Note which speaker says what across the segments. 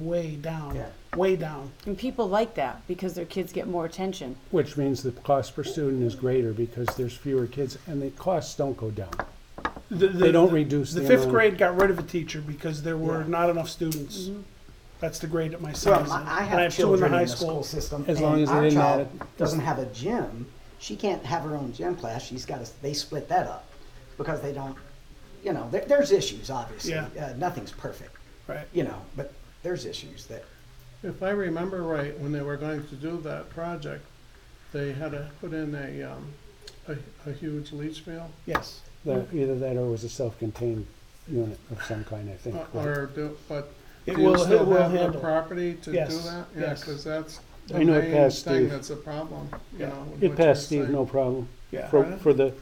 Speaker 1: way down,
Speaker 2: Yeah.
Speaker 1: way down.
Speaker 3: And people like that because their kids get more attention.
Speaker 4: Which means the cost per student is greater because there's fewer kids and the costs don't go down. They don't reduce
Speaker 1: The
Speaker 4: the
Speaker 1: fifth
Speaker 4: amount.
Speaker 1: grade got rid of a teacher because there were
Speaker 2: Yeah.
Speaker 1: not enough students. That's the grade at my son's.
Speaker 2: Well,
Speaker 1: in.
Speaker 2: I I
Speaker 1: And
Speaker 2: have children in the school
Speaker 1: school.
Speaker 2: system.
Speaker 4: As long
Speaker 2: and
Speaker 4: as they
Speaker 2: our
Speaker 4: didn't
Speaker 2: child
Speaker 4: add it.
Speaker 2: Doesn't have a gym, she can't have her own gym class, she's gotta, they split that up, because they don't, you know, there, there's issues, obviously.
Speaker 1: Yeah.
Speaker 2: Uh, nothing's perfect,
Speaker 1: Right.
Speaker 2: you know, but there's issues that,
Speaker 5: If I remember right, when they were going to do that project, they had to put in a, um, a, a huge leach field,
Speaker 1: Yes.
Speaker 5: Mm.
Speaker 4: That- Either that or it was a self-contained unit of some kind, I think.
Speaker 5: uh,
Speaker 4: right?
Speaker 5: or do, but
Speaker 1: It
Speaker 5: do you
Speaker 1: will, it
Speaker 5: still
Speaker 1: will
Speaker 5: have the
Speaker 1: handle.
Speaker 5: property to do
Speaker 1: Yes,
Speaker 5: that? Yeah,
Speaker 1: yes.
Speaker 5: cause that's the
Speaker 4: I know it
Speaker 5: main
Speaker 4: passed
Speaker 5: thing
Speaker 4: Steve.
Speaker 5: that's a problem, you
Speaker 1: Yeah.
Speaker 5: know. with
Speaker 4: It
Speaker 5: what you're
Speaker 4: passed Steve,
Speaker 5: saying.
Speaker 4: no problem.
Speaker 1: Yeah.
Speaker 4: For, for the,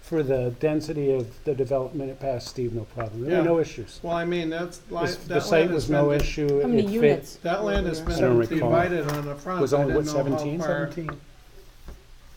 Speaker 4: for the density of the development, it passed Steve, no problem. There
Speaker 5: Yeah.
Speaker 4: were no issues.
Speaker 5: Well, I mean, that's, li-
Speaker 4: The s-
Speaker 5: that
Speaker 4: The
Speaker 5: land
Speaker 4: site
Speaker 5: has
Speaker 4: was no
Speaker 5: been,
Speaker 4: issue.
Speaker 3: How
Speaker 4: It
Speaker 3: many
Speaker 4: fit-
Speaker 3: units?
Speaker 5: that land has
Speaker 4: I
Speaker 5: been
Speaker 4: don't recall.
Speaker 5: divided on the front.
Speaker 4: Was
Speaker 5: I
Speaker 4: only, what,
Speaker 5: didn't know how
Speaker 4: 17?
Speaker 5: far-
Speaker 1: Seventeen.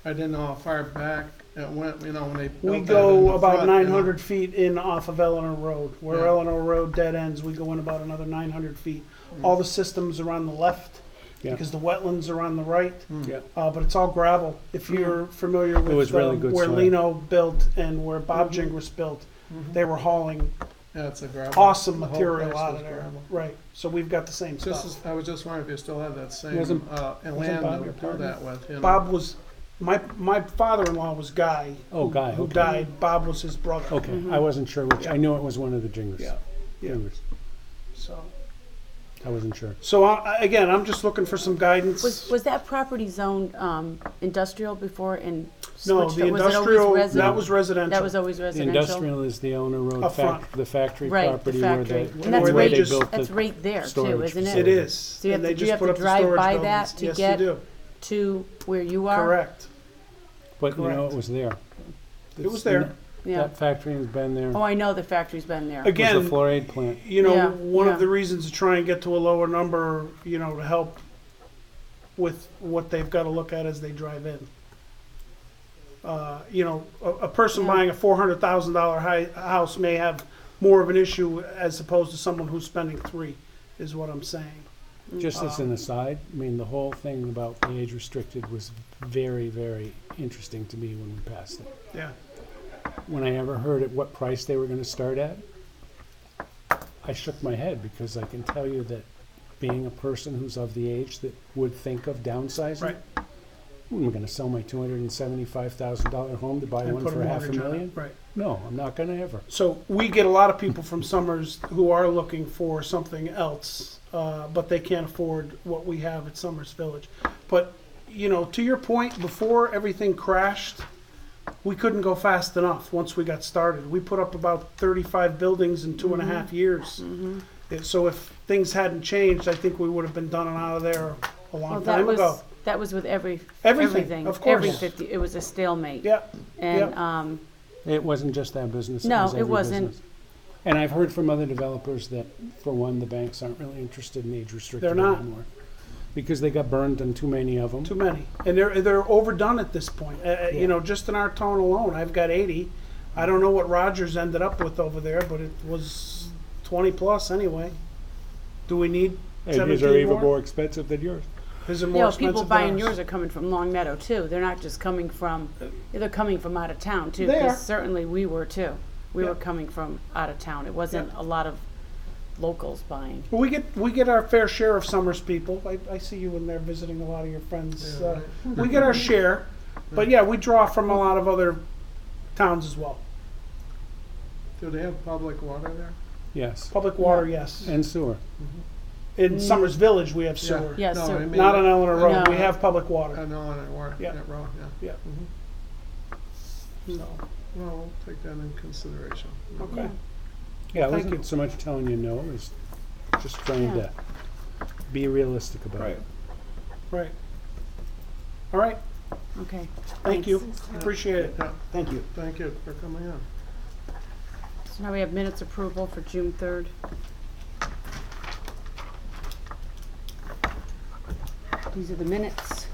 Speaker 5: I didn't know how far back it went, you know, when they built that
Speaker 1: We
Speaker 5: in
Speaker 1: go
Speaker 5: the
Speaker 1: about
Speaker 5: front, you know.
Speaker 1: nine hundred feet in off of Eleanor Road. Where
Speaker 5: Yeah.
Speaker 1: Eleanor Road dead ends, we go in about another nine hundred feet.
Speaker 2: Mm.
Speaker 1: All the systems are on the left
Speaker 4: Yeah.
Speaker 1: because the wetlands are on the
Speaker 2: Mm.
Speaker 1: right.
Speaker 5: Hmm.
Speaker 4: Yeah.
Speaker 1: uh, but it's all gravel. If you're familiar with
Speaker 4: Mm-hmm. was really
Speaker 1: um,
Speaker 4: good Mm-hmm.
Speaker 1: where
Speaker 4: soil.
Speaker 1: Lino built and where Bob Jing was built, they were hauling
Speaker 5: Yeah, it's a gravel.
Speaker 1: awesome
Speaker 5: The whole
Speaker 1: material
Speaker 5: place
Speaker 1: out
Speaker 5: was
Speaker 1: of there.
Speaker 5: gravel.
Speaker 1: Right. So we've got the same
Speaker 5: Just,
Speaker 1: stuff.
Speaker 5: as- I was just wondering if you still have that same,
Speaker 4: Wasn't-
Speaker 5: uh,
Speaker 1: wasn't
Speaker 5: land
Speaker 1: Bob
Speaker 5: that
Speaker 1: your
Speaker 5: would do
Speaker 1: partner?
Speaker 5: that with, you know?
Speaker 1: Bob was my my father-in-law was Guy.
Speaker 4: Oh,
Speaker 1: who-
Speaker 4: Guy,
Speaker 1: who
Speaker 4: okay.
Speaker 1: died. Bob was his brother.
Speaker 4: Okay,
Speaker 3: Mm-hmm.
Speaker 4: I wasn't sure which. I knew it was one of the jingers.
Speaker 1: Yeah. Yeah.
Speaker 4: Jingers.
Speaker 1: So
Speaker 4: I wasn't sure.
Speaker 1: so I, I- again, I'm just looking for some guidance.
Speaker 3: Was, was that property zoned um, industrial before and switched?
Speaker 1: no,
Speaker 3: or
Speaker 1: the
Speaker 3: was it always
Speaker 1: industrial
Speaker 3: resi-
Speaker 1: that was residential.
Speaker 3: That was always
Speaker 4: The
Speaker 3: residential?
Speaker 4: industrial is the Eleanor Road
Speaker 1: Up front.
Speaker 4: fac, the factory
Speaker 3: Right, the
Speaker 4: property where
Speaker 3: factory.
Speaker 4: they,
Speaker 3: And
Speaker 1: where
Speaker 3: that's
Speaker 4: where they
Speaker 3: right,
Speaker 4: built
Speaker 3: that's
Speaker 4: the,
Speaker 3: right there too,
Speaker 4: storage
Speaker 3: isn't
Speaker 1: it
Speaker 3: it?
Speaker 4: facility.
Speaker 1: is.
Speaker 3: you have
Speaker 1: and
Speaker 3: to-
Speaker 1: they
Speaker 3: do
Speaker 1: just
Speaker 3: you have
Speaker 1: put
Speaker 3: to
Speaker 1: up
Speaker 3: drive
Speaker 1: the storage
Speaker 3: by
Speaker 1: buildings.
Speaker 3: that to
Speaker 1: yes,
Speaker 3: get-
Speaker 1: you do.
Speaker 3: To where you are?
Speaker 1: Correct.
Speaker 4: but you know,
Speaker 1: correct.
Speaker 4: it was there.
Speaker 1: It was there.
Speaker 3: Yeah.
Speaker 4: That factory has been there.
Speaker 3: Oh, I know the factory's been there.
Speaker 1: Again,
Speaker 4: It was a fluoride plant.
Speaker 1: you know,
Speaker 3: Yeah,
Speaker 1: one
Speaker 3: yeah.
Speaker 1: of the reasons to try and get to a lower number, you know, to help with what they've got to look at as they drive in. Uh, you know, a, a person
Speaker 3: Yeah.
Speaker 1: buying a four hundred thousand dollar house may have more of an issue as opposed to someone who's spending three, is what I'm saying. Mm.
Speaker 4: Just as an aside, I mean, the whole thing about the age restricted was very, very interesting to me when we passed it.
Speaker 1: Yeah,
Speaker 4: When I ever heard at what price they were gonna start at, I shook my head because I can tell you that being a person who's of the age that would think of downsizing.
Speaker 1: right.
Speaker 4: I'm gonna sell my two hundred and seventy-five thousand dollar home to buy
Speaker 1: And
Speaker 4: one
Speaker 1: put
Speaker 4: for half a
Speaker 1: mortgage on it,
Speaker 4: million?
Speaker 1: Right.
Speaker 4: No, I'm not gonna ever.
Speaker 1: So we get a lot of people from Summers who are looking for something else, uh, but they can't afford what we have at Summers Village. But, you know, to your point, before everything crashed, we couldn't go fast enough once we got started. We put up about thirty-five buildings in two and a
Speaker 3: Mm-hmm.
Speaker 1: half years. And So if things hadn't changed, I think we would have been done and out of there a
Speaker 3: Well,
Speaker 1: long
Speaker 3: that
Speaker 1: time
Speaker 3: was,
Speaker 1: ago.
Speaker 3: that was with every,
Speaker 1: Everything,
Speaker 3: everything.
Speaker 1: of course.
Speaker 3: Every
Speaker 1: Yeah.
Speaker 3: 50, it was a stalemate.
Speaker 1: Yeah,
Speaker 3: And,
Speaker 1: yeah.
Speaker 3: um,
Speaker 4: It wasn't just that business.
Speaker 3: No,
Speaker 4: was
Speaker 3: it
Speaker 4: every
Speaker 3: wasn't.
Speaker 4: business. And I've heard from other developers that, for one, the banks aren't really interested in age restricted
Speaker 1: They're not.
Speaker 4: anymore. Because they got burned on too many of them.
Speaker 1: Too many, and they're they're overdone at this point. Uh, uh, You know, just in our town alone, I've got eighty. I don't know what Rogers ended up with over there, but it was twenty plus anyway. Do we need
Speaker 4: And these are
Speaker 1: seventeen
Speaker 4: even
Speaker 1: more?
Speaker 4: more expensive than yours.
Speaker 1: His are
Speaker 3: you
Speaker 1: more
Speaker 3: know, people
Speaker 1: expensive
Speaker 3: buying
Speaker 1: than
Speaker 3: yours
Speaker 1: ours.
Speaker 3: are coming from Long Meadow too. They're not just coming from, they're coming from out of town too.
Speaker 1: They are.
Speaker 3: Because certainly we were too. We
Speaker 1: Yeah.
Speaker 3: were coming from out of town. It wasn't a lot of locals buying.
Speaker 1: Well, We get, we get our fair share of Summers people. I, I see you in there visiting a lot of your friends.
Speaker 5: Yeah,
Speaker 1: Uh, We get our share, but yeah, we draw from a lot of other towns as well.
Speaker 5: Do they have public water there?
Speaker 4: Yes.
Speaker 1: Public water, yes.
Speaker 4: And sewer.
Speaker 1: In Summers Village, we have
Speaker 5: Yeah.
Speaker 1: sewer.
Speaker 3: Yeah. Yes,
Speaker 5: No,
Speaker 3: sir.
Speaker 5: I mean,
Speaker 1: Not on Eleanor Road.
Speaker 3: No.
Speaker 1: We have public water.
Speaker 5: On Eleanor Road,
Speaker 1: Yeah.
Speaker 5: that road, yeah. Mm-hmm.
Speaker 1: Yeah. So,
Speaker 5: Well, we'll take that in consideration.
Speaker 1: okay.
Speaker 4: Yeah, I
Speaker 1: Thank you.
Speaker 4: wasn't so much telling you no, it's just trying
Speaker 3: Yeah.
Speaker 4: to be realistic about it.
Speaker 1: Right. All right,
Speaker 3: Okay.
Speaker 1: thank
Speaker 3: Thanks.
Speaker 1: you, appreciate it.
Speaker 5: Yeah,
Speaker 2: thank you.
Speaker 5: thank you for coming in.
Speaker 3: So now we have minutes approval for June third. These are the minutes.